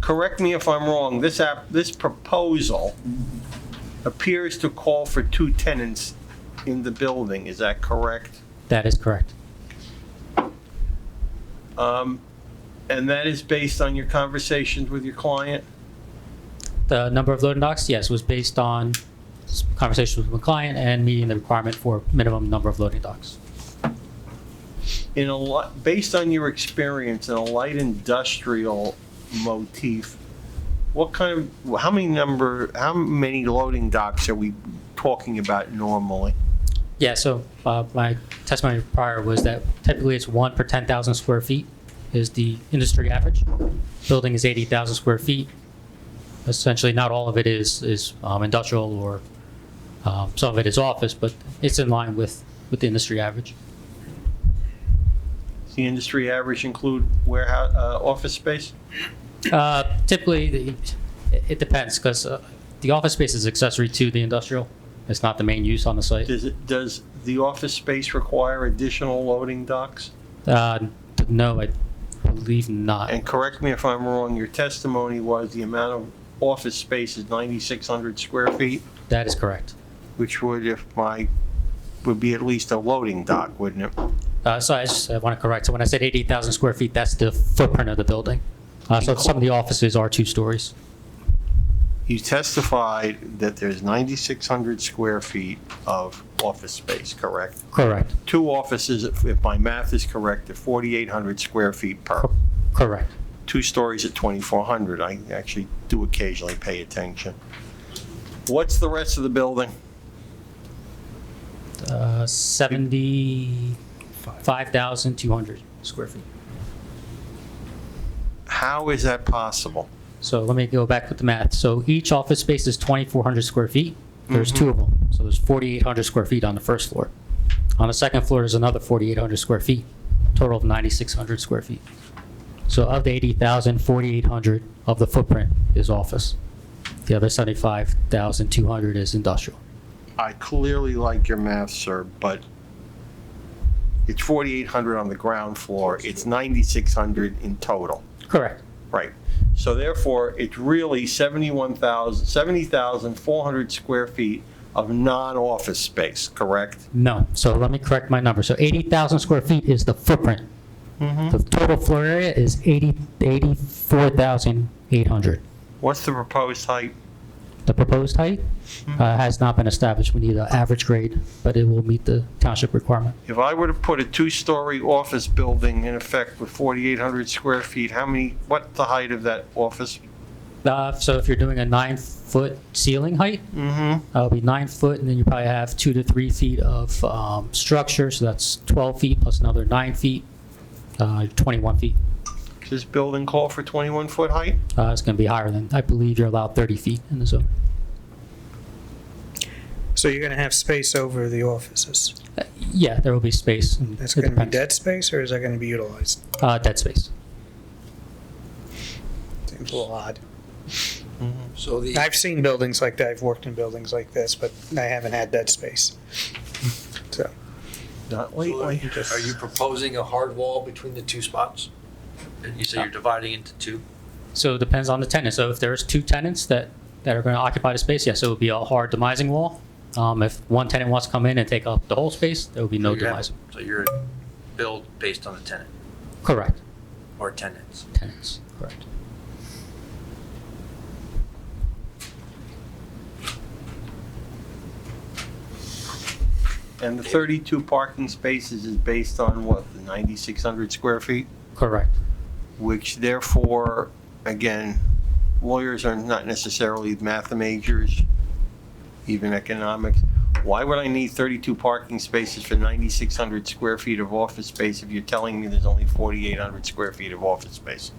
correct me if I'm wrong, this app, this proposal appears to call for two tenants in the building, is that correct? That is correct. Um, And that is based on your conversations with your client? The number of loading docks, yes, was based on s- conversations with my client and meeting the requirement for minimum number of loading docks. in a li based on your experience in a light industrial motif, what kind of, how many number, how many loading docks are we talking about normally? Yeah, so uh, my testimony prior was that typically it's one per 10,000 square feet is the industry average. Building is 80,000 square feet. Essentially, not all of it is, is um, industrial or um, some of it is office, but it's in line with, with the industry average. Does the industry average include warehouse, uh, office space? Uh, Typically, the- it depends, because the office space is accessory to the industrial. It's not the main use on the site. Does it, does the office space require additional loading docks? Uh, No, I believe not. And correct me if I'm wrong, your testimony was the amount of office space is 9,600 square feet, That is correct. which would, if my, would be at least a loading dock, wouldn't it? Uh, So I just want to correct, so when I said 88,000 square feet, that's the footprint of the building. Uh, So some of the offices are two stories. You testified that there's 9,600 square feet of office space, correct? Correct, Two offices, if if my math is correct, are 4,800 square feet per. correct. Two stories at 2,400. I actually do occasionally pay attention. What's the rest of the building? Uh, 75,200 square feet. How is that possible? So let me go back with the math. So each office space is 2,400 square feet. There's two of them. So there's 4,800 square feet on the first floor. On the second floor, there's another 4,800 square feet, total of 9,600 square feet. So of the 80,000, 4,800 of the footprint is office. The other 75,200 is industrial. I clearly like your math, sir, but it's 4,800 on the ground floor. It's 9,600 in total. Correct. Right. So therefore, it's really 71,000, 70,400 square feet of non-office space, correct? No, so let me correct my number. So 80,000 square feet is the footprint. The total floor area is 80 84,800. What's the proposed height? The proposed height uh, has not been established. We need an average grade, but it will meet the township requirement. If I were to put a two-story office building in effect with 4,800 square feet, how many, what's the height of that office? Uh, So if you're doing a nine-foot ceiling height, Mm-hmm. that'll be nine foot, and then you probably have two to three feet of um, structure, so that's 12 feet plus another nine feet, uh, 21 feet. Does this building call for 21-foot height? Uh, It's going to be higher than, I believe you're allowed 30 feet in the zone. So you're gonna have space over the offices. Uh, Yeah, there will be space. and That's it gonna be depends. dead space or is that gonna be utilized? Uh, Dead space. Seems a little odd. So the, I've seen buildings like that, I've worked in buildings like this, but I haven't had dead space. So, Not are you proposing a hard wall between the two spots? And you say you're dividing into two? So it depends on the tenant. So if there's two tenants that, that are going to occupy the space, yes, it would be a hard demising wall. Um, if one tenant wants to come in and take up the whole space, there would be no So you have- demising. So you're build based on a tenant Correct. or tenants. Tenants. Correct. And the 32 parking spaces is based on what, the 9,600 square feet? Correct. which therefore, again, lawyers are not necessarily math majors, even economics. Why would I need 32 parking spaces for 9,600 square feet of office space if you're telling me there's only 4,800 square feet of office space?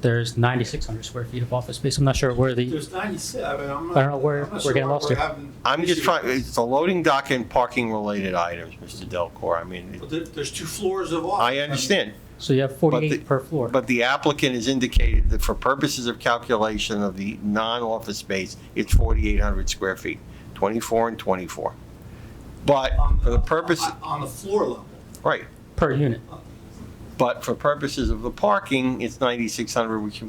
There's 9,600 square feet of office space. I'm not sure where the, There's 96, I mean, I'm not. I don't know where I'm not we're sure getting why lost we're here. having I'm just issues. trying, it's the loading dock and parking-related items, Mr. Delcor. I mean, But there- There's two floors of office. I understand, so you have the- 48 per floor. but the applicant has indicated that for purposes of calculation of the non-office space, it's 4,800 square feet, 24 and 24. But On for the purpose, on- On the floor level. right, Per unit. But for purposes of the parking, it's 9,600, which